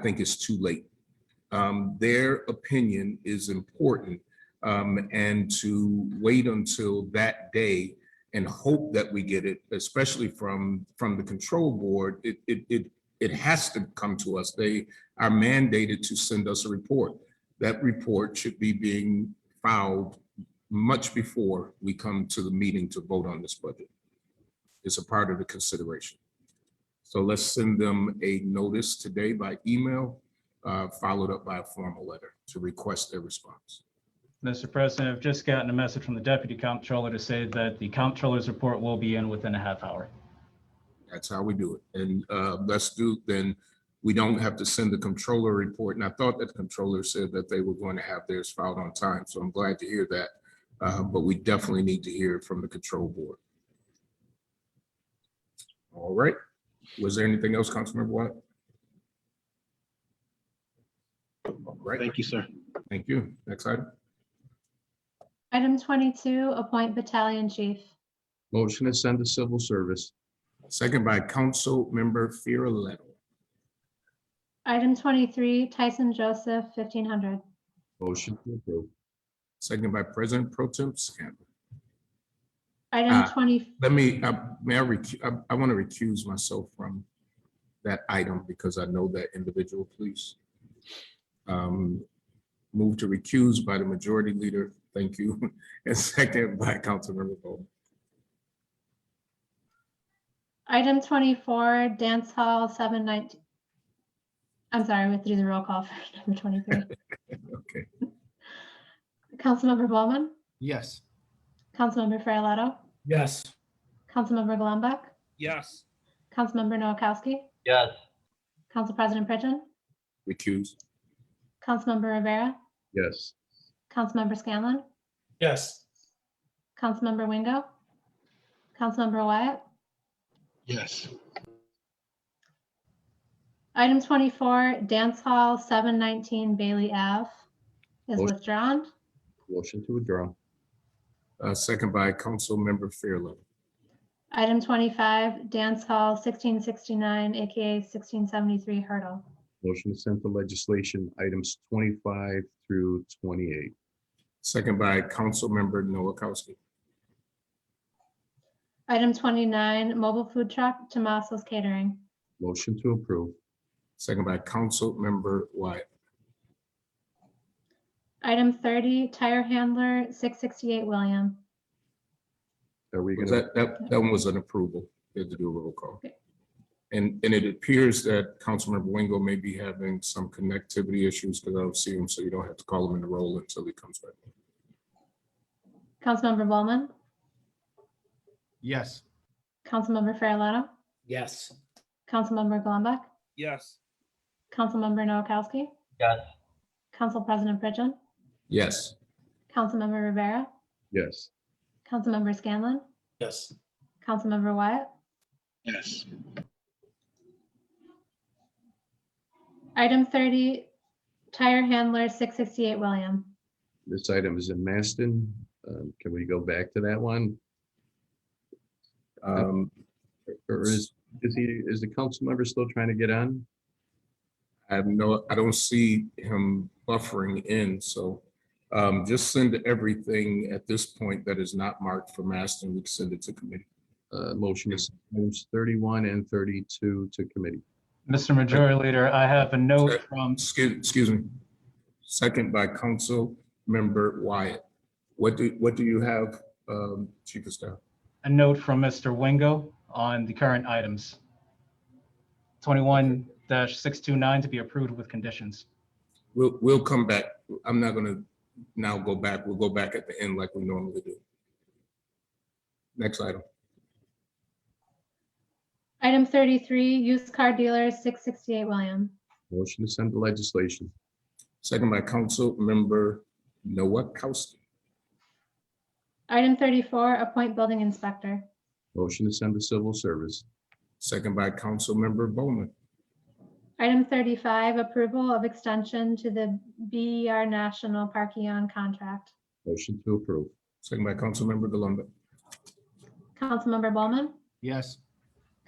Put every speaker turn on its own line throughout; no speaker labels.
I think it's too late. Um, Their opinion is important. um, And to wait until that day and hope that we get it, especially from, from the control board, it, it, it, it has to come to us. They are mandated to send us a report. That report should be being filed much before we come to the meeting to vote on this budget. It's a part of the consideration. So let's send them a notice today by email, uh, followed up by a formal letter to request their response.
Mr. President, I've just gotten a message from the deputy comptroller to say that the comptroller's report will be in within a half hour.
That's how we do it. And uh, let's do, then we don't have to send the controller report. And I thought that the controller said that they were going to have theirs filed on time. So I'm glad to hear that. Uh, But we definitely need to hear from the control board. All right. Was there anything else, Councilmember Wyatt? All right,
Thank you, sir.
thank you. Next item.
Item twenty-two, appoint battalion chief.
Motion to send to civil service.
Second by Councilmember Farrelletto.
Item twenty-three, Tyson Joseph, fifteen hundred.
Motion to approve.
Second by President Pro Tem Scanlon.
Item
Ah.
twenty,
Let me, uh, may I, recu- I, I want to recuse myself from that item because I know that individual, please. Um, Move to recuse by the majority leader, thank you, and second by Councilmember Bowman.
item twenty-four, dance hall, seven nineteen. I'm sorry, we have to do the roll call for number twenty-three.
Okay,
Councilmember Bowman,
Yes.
Councilmember Farrelletto,
Yes.
Councilmember Golumback,
Yes.
Councilmember Noakowski,
Yes.
Council President Pridgen,
recuse,
Councilmember Rivera,
Yes.
Councilmember Scanlon,
Yes.
Councilmember Wingo, Councilmember Wyatt,
Yes.
Item twenty-four, Dance Hall, seven nineteen Bailey Ave is
Motion.
withdrawn.
Motion to withdraw.
uh, second by Councilmember Fairlevel.
Item twenty-five, Dance Hall, sixteen sixty-nine, AKA sixteen seventy-three Hurdle.
Motion to send to legislation items twenty-five through twenty-eight.
Second by Councilmember Noakowski.
Item twenty-nine, Mobile Food Truck, Tomaso's Catering.
Motion to approve.
second by Councilmember Wyatt,
Item thirty, Tire Handler, six sixty-eight William.
Are we
Was
gonna,
that, that, that one was an approval, we had to do a roll call.
Okay.
And, and it appears that Councilmember Wingo may be having some connectivity issues because I don't see him, so you don't have to call him in the roll until he comes back.
Councilmember Bowman,
yes.
Councilmember Farrelletto,
Yes.
Councilmember Golumback,
Yes.
Councilmember Noakowski,
Yes.
Council President Pridgen,
Yes,
Councilmember Rivera,
Yes.
Councilmember Scanlon,
Yes.
Councilmember Wyatt,
Yes.
Item thirty, tire handler, six sixty-eight William.
This item is in Maston. Um, Can we go back to that one?
um,
Or is, is he, is the council member still trying to get on?
I have no, I don't see him buffering in, so um, just send everything at this point that is not marked for master, and we can send it to committee.
Uh, Motion is items thirty-one and thirty-two to committee.
Mr. Majority Leader, I have a note from,
Excuse, excuse me, second by Councilmember Wyatt. What do, what do you have, um, Chief of Staff?
a note from Mr. Wingo on the current items. Twenty-one six two nine to be approved with conditions.
We'll, we'll come back. I'm not gonna now go back. We'll go back at the end like we normally do. Next item.
Item thirty-three, used car dealer, six sixty-eight William.
Motion to send to legislation.
Second by council member Noakowski.
Item thirty-four, appoint building inspector.
Motion to send to civil service.
Second by council member Bowman.
Item thirty-five, approval of extension to the BER National Parkion contract.
Motion to approve.
Second by council member Galunde.
Councilmember Bowman,
Yes.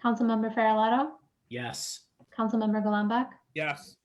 Councilmember Farrelletto,
Yes.
Councilmember Golumback,
Yes.